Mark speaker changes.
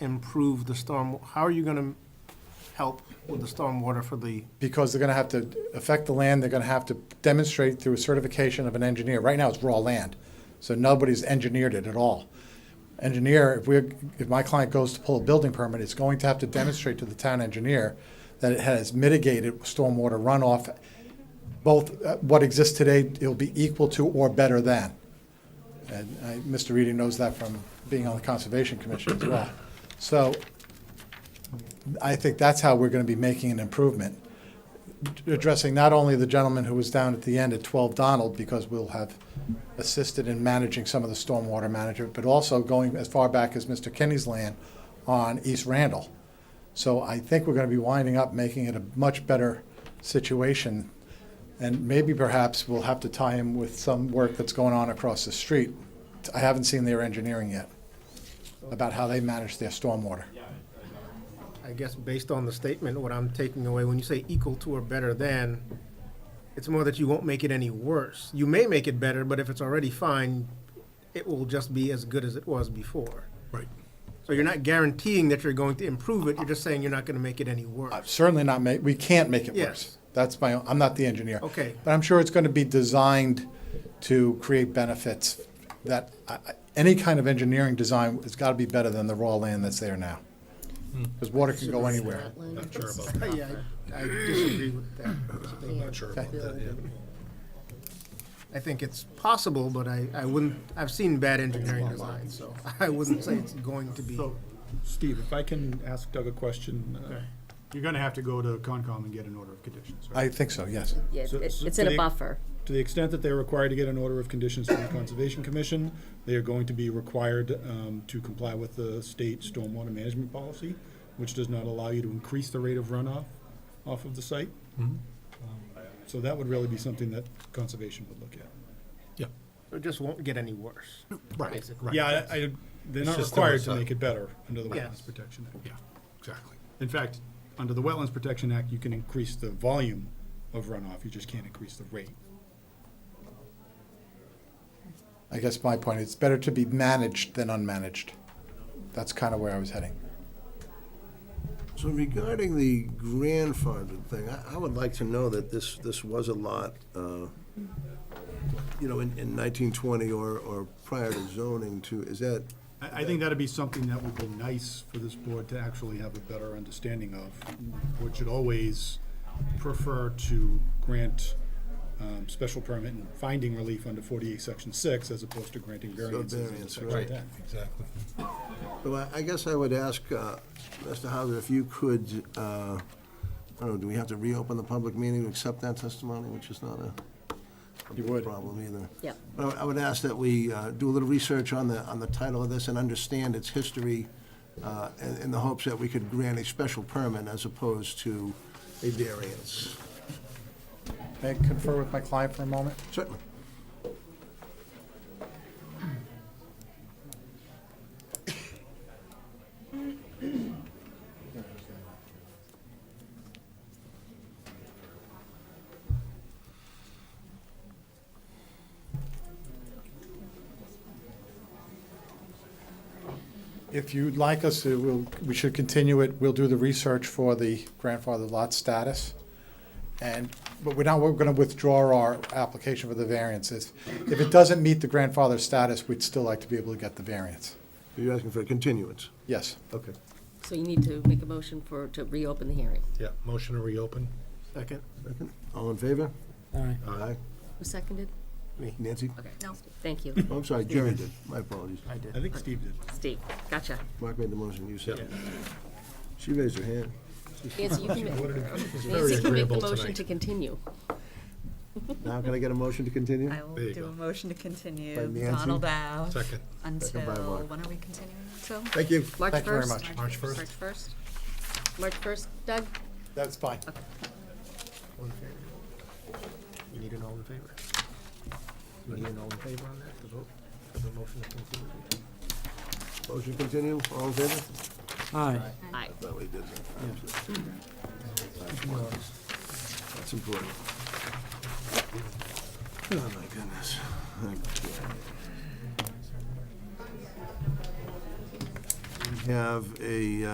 Speaker 1: improve the storm, how are you gonna help with the stormwater for the,
Speaker 2: because they're going to have to affect the land, they're going to have to demonstrate through a certification of an engineer. Right now, it's raw land, so nobody's engineered it at all. Engineer, if we, if my client goes to pull a building permit, it's going to have to demonstrate to the town engineer that it has mitigated stormwater runoff, both uh, what exists today, it'll be equal to or better than. And I- Mr. Reedy knows that from being on the Conservation Commission as well. So I think that's how we're going to be making an improvement, addressing not only the gentleman who was down at the end at 12 Donald, because we'll have assisted in managing some of the stormwater management, but also going as far back as Mr. Kenny's land on East Randall. So I think we're going to be winding up making it a much better situation. And maybe perhaps we'll have to tie him with some work that's going on across the street. I haven't seen their engineering yet about how they manage their stormwater.
Speaker 1: I guess, based on the statement, what I'm taking away, when you say equal to or better than, it's more that you won't make it any worse. You may make it better, but if it's already fine, it will just be as good as it was before.
Speaker 3: Right.
Speaker 1: So you're not guaranteeing that you're going to improve it, you're just saying you're not gonna make it any
Speaker 2: I've
Speaker 1: worse.
Speaker 2: certainly not make, we can't make it
Speaker 1: Yes.
Speaker 2: worse. That's my, own- I'm not the engineer.
Speaker 1: Okay.
Speaker 2: But I'm sure it's going to be designed to create benefits that, I- I- any kind of engineering design has got to be better than the raw land that's there now. Because water can go anywhere.
Speaker 3: Not sure about that.
Speaker 1: Yeah, I I disagree with that statement.
Speaker 3: Not sure about that, yeah.
Speaker 1: I think it's possible, but I, I wouldn't, I've seen bad engineering design, so I wouldn't say it's going to be.
Speaker 4: So, Steve, if I can ask Doug a question, uh, you're gonna have to go to Concom and get an order of conditions, right?
Speaker 2: I think so, yes.
Speaker 5: Yeah,
Speaker 4: So-
Speaker 5: it-
Speaker 4: so
Speaker 5: it's in
Speaker 4: they-
Speaker 5: a buffer.
Speaker 4: To the extent that they're required to get an order of conditions from the Conservation Commission, they are going to be required um, to comply with the state stormwater management policy, which does not allow you to increase the rate of runoff off of the site.
Speaker 3: Mm-hmm.
Speaker 4: Um, So that would really be something that Conservation would look at.
Speaker 3: Yeah.
Speaker 1: It just won't get any worse.
Speaker 3: Right, right.
Speaker 4: Yeah, I, I- they're
Speaker 3: It's
Speaker 4: not
Speaker 3: just
Speaker 4: required to
Speaker 3: oversight.
Speaker 4: make it better under the
Speaker 1: Yes.
Speaker 4: Wetlands Protection Act.
Speaker 3: Yeah, exactly.
Speaker 4: In fact, under the Wetlands Protection Act, you can increase the volume of runoff, you just can't increase the rate.
Speaker 2: I guess my point, it's better to be managed than unmanaged. That's kind of where I was heading.
Speaker 6: So regarding the grandfathered thing, I, I would like to know that this, this was a lot, uh, you know, in, in nineteen twenty or, or prior to zoning to, is that,
Speaker 4: I, I think that'd be something that would be nice for this board to actually have a better understanding of. Board should always prefer to grant, um, special permit and finding relief under forty-eight, section six, as opposed to granting variances under
Speaker 6: variance,
Speaker 4: section
Speaker 6: right.
Speaker 4: ten.
Speaker 3: Exactly.
Speaker 6: so I, I guess I would ask, uh, Mr. Hauser, if you could, uh, I don't know, do we have to reopen the public meeting to accept that testimony, which is not a a
Speaker 2: You would.
Speaker 6: problem either?
Speaker 5: Yep.
Speaker 6: But I would- I would ask that we uh, do a little research on the, on the title of this and understand its history uh, in in the hopes that we could grant a special permit as opposed to a variance.
Speaker 2: May I confer with my client for a moment?
Speaker 6: Certainly.
Speaker 2: If you'd like us to, we'll, we should continue it, we'll do the research for the grandfather lot status. And, but we're not, we're gonna withdraw our application for the variances. If it doesn't meet the grandfather status, we'd still like to be able to get the variance.
Speaker 6: You're asking for a continuance?
Speaker 2: Yes.
Speaker 6: Okay.
Speaker 5: So you need to make a motion for, to reopen the hearing.
Speaker 3: Yeah, motion to reopen.
Speaker 1: Second,
Speaker 6: Second. All in favor?
Speaker 3: Aye.
Speaker 6: Aye.
Speaker 5: Who seconded?
Speaker 6: Nancy?
Speaker 5: Okay. No. Thank you.
Speaker 6: Oh, I'm sorry, Jerry did. My apologies.
Speaker 1: I did.
Speaker 4: I think Steve did.
Speaker 5: Steve, gotcha.
Speaker 6: Mark made the motion, you said. She raised her hand.
Speaker 5: Nancy, you can make,
Speaker 3: very
Speaker 5: Nancy can make the
Speaker 3: agreeable
Speaker 5: motion
Speaker 3: tonight.
Speaker 5: to continue.
Speaker 6: Now can I get a motion to continue?
Speaker 7: I will
Speaker 3: There you
Speaker 7: do
Speaker 3: go.
Speaker 7: a motion to continue
Speaker 6: By Nancy.
Speaker 7: Donald Ave
Speaker 3: Second.
Speaker 7: until,
Speaker 6: Second by Mark.
Speaker 7: when are we continuing until?
Speaker 6: Thank you.
Speaker 5: March
Speaker 2: Thank you very
Speaker 5: 1st?
Speaker 2: much.
Speaker 3: March first.
Speaker 5: March 1st? March 1st, Doug?
Speaker 2: That's fine.
Speaker 1: All in favor? You need an all in favor? You need an all in favor on that, to vote, for the motion to continue?
Speaker 6: Motion to continue, all in favor?
Speaker 5: Aye.
Speaker 6: That way he did that. That's important. Oh, my goodness. Okay. have a, uh,